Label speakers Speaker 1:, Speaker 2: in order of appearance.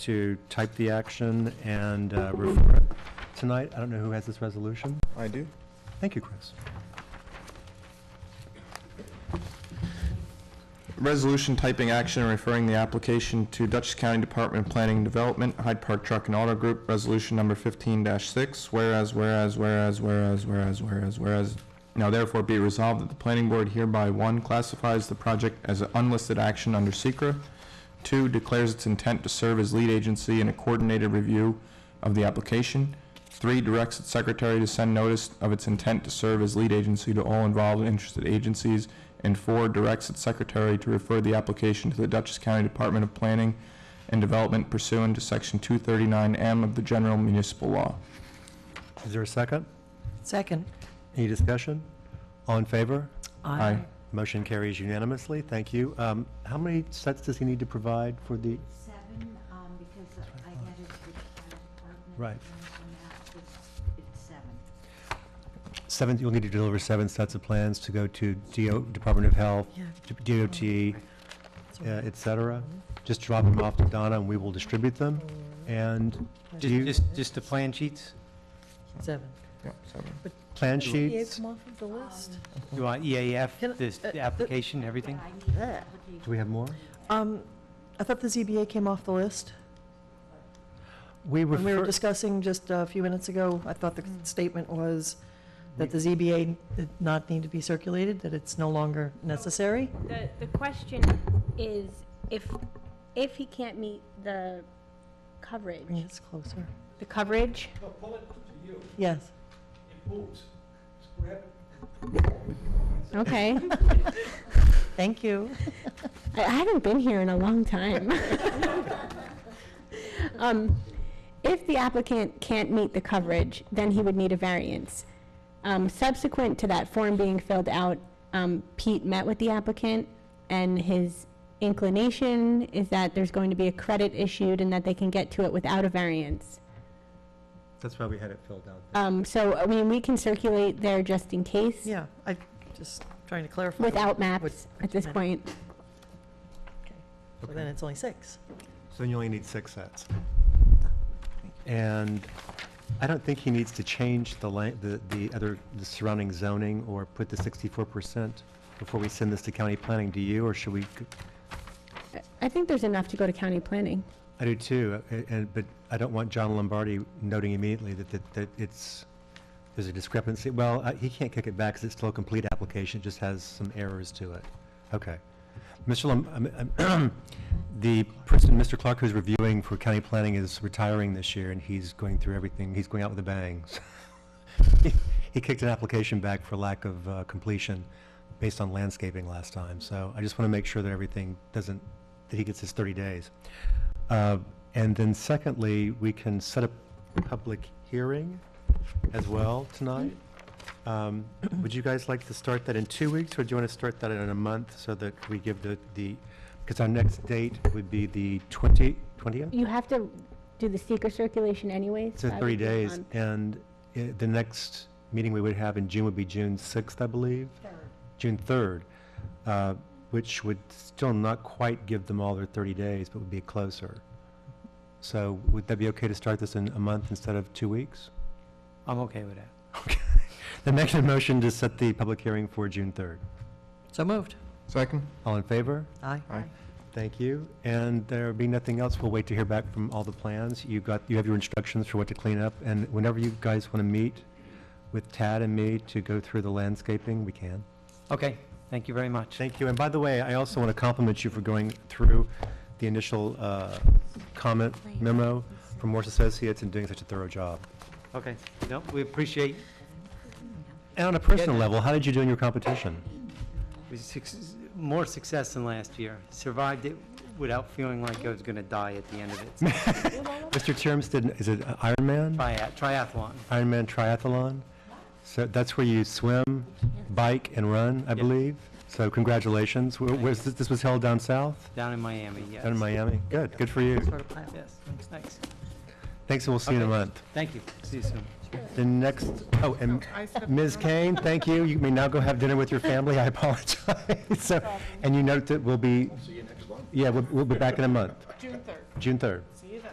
Speaker 1: to type the action and uh, refer it tonight. I don't know who has this resolution.
Speaker 2: I do.
Speaker 1: Thank you, Chris.
Speaker 2: Resolution typing action and referring the application to Dutchess County Department of Planning and Development, Hyde Park Truck and Auto Group, resolution number fifteen six, whereas, whereas, whereas, whereas, whereas, whereas, whereas. Now therefore be resolved that the planning board hereby, one, classifies the project as an unlisted action under secra Two, declares its intent to serve as lead agency in a coordinated review of the application. Three, directs its secretary to send notice of its intent to serve as lead agency to all involved and interested agencies. And four, directs its secretary to refer the application to the Dutchess County Department of Planning and Development pursuant to Section 239M of the General Municipal Law.
Speaker 1: Is there a second?
Speaker 3: Second.
Speaker 1: Any discussion? All in favor?
Speaker 2: Aye.
Speaker 1: Motion carries unanimously. Thank you. Um, How many sets does he need to provide for the,
Speaker 4: Seven, um, because I added the fire department.
Speaker 1: Right.
Speaker 4: and that was- It's seven.
Speaker 1: seven, you'll need to deliver seven sets of plans to go to DO, Department of Health,
Speaker 3: Yeah.
Speaker 1: DOT, uh, et cetera? Just drop them off to Donna and we will distribute them. And do
Speaker 5: Just,
Speaker 1: you,
Speaker 5: just, just the plan sheets?
Speaker 3: Seven.
Speaker 2: Yep, seven.
Speaker 1: plan
Speaker 3: Yeah,
Speaker 1: sheets?
Speaker 3: come off of the list.
Speaker 5: You want EAF,
Speaker 3: Can I-
Speaker 5: E this,
Speaker 3: uh,
Speaker 5: the
Speaker 3: uh,
Speaker 5: application, everything?
Speaker 4: But I need the
Speaker 3: Ugh.
Speaker 4: application.
Speaker 1: Do we have more?
Speaker 3: Um, I thought the ZBA came off the list.
Speaker 1: We
Speaker 3: When we were Mm.
Speaker 1: refer,
Speaker 3: discussing just a few minutes ago, I thought the statement was that the ZBA did not need to be circulated, that it's no longer necessary.
Speaker 6: The, the question is, if, if he can't meet the
Speaker 3: Bring
Speaker 6: coverage,
Speaker 3: it closer.
Speaker 6: the coverage,
Speaker 3: Yes.
Speaker 6: okay.
Speaker 3: Thank you.
Speaker 6: I I haven't been here in a long time. Um, If the applicant can't meet the coverage, then he would need a variance. Um, Subsequent to that form being filled out, um, Pete met with the applicant, and his inclination is that there's going to be a credit issued and that they can get to it without a variance.
Speaker 1: that's why we had it filled out.
Speaker 6: Um, So, I mean, we can circulate there just in case.
Speaker 3: Yeah, I, just trying to clarify. With-
Speaker 6: Without maps at this point.
Speaker 3: So Then it's only six.
Speaker 1: So you only need six sets. And I don't think he needs to change the la, the, the other, the surrounding zoning or put the sixty-four percent before we send this to county planning, do you, or should we? g-
Speaker 6: I- I think there's enough to go to county planning.
Speaker 1: I do too, uh, and, but I don't want John Lombardi noting immediately that, that, that it's, there's a discrepancy. Well, uh, he can't kick it back because it's still a complete application, it just has some errors to it. Okay. Mr. Lom, um, um, the person, Mr. Clark, who's reviewing for county planning is retiring this year and he's going through everything, he's going out with a bang. He- He kicked an application back for lack of uh, completion based on landscaping last time, so I just want to make sure that everything doesn't, that he gets his thirty days. Uh, And then secondly, we can set up a public hearing as well tonight. Um, Would you guys like to start that in two weeks, or do you want to start that in a month so that we give the, the, because our next date would be the 20, 20th?
Speaker 6: You have to do the seeker circulation anyways.
Speaker 1: So
Speaker 6: so I would
Speaker 1: 30
Speaker 6: do it
Speaker 1: days,
Speaker 6: on-
Speaker 1: and uh, the next meeting we would have in June would be June 6th, I believe? June 3rd, uh, which would still not quite give them all their 30 days, but would be closer. So would that be okay to start this in a month instead of two weeks?
Speaker 5: I'm okay with that.
Speaker 1: The next motion to set the public hearing for June 3rd.
Speaker 3: So moved.
Speaker 2: Second?
Speaker 1: All in favor?
Speaker 3: Aye.
Speaker 2: Aye.
Speaker 1: Thank you. And there being nothing else, we'll wait to hear back from all the plans. You got, you have your instructions for what to clean up, and whenever you guys want to meet with Tad and me to go through the landscaping, we can.
Speaker 5: Okay, thank you very much.
Speaker 1: Thank you. And by the way, I also want to compliment you for going through the initial uh, comment memo from Morse Associates and doing such a thorough job.
Speaker 5: Okay, no, we appreciate,
Speaker 1: And on a personal level, how did you do in your competition?
Speaker 5: we suc- more success than last year. Survived it without feeling like I was gonna die at the end of it.
Speaker 1: Mr. Terms did, is it Ironman?
Speaker 5: Tria- Triathlon.
Speaker 1: Ironman triathlon. So that's where you swim, bike, and run, I
Speaker 5: Yeah.
Speaker 1: believe. So congratulations. Where- Where's, this this was held down south,
Speaker 5: Down in Miami, yes.
Speaker 1: down in Miami? Good, good for you.
Speaker 3: Sort of pilot.
Speaker 5: Yes, thanks.
Speaker 1: Thanks, and we'll see you in a
Speaker 5: Okay.
Speaker 1: month.
Speaker 5: Thank you, see you soon.
Speaker 1: The next, oh, and Ms. Kane, thank you. You may now go have dinner with your family. I apologize. So, and you note that we'll be. Yeah, we'll, we'll be back in a month. June 3rd. June 3rd.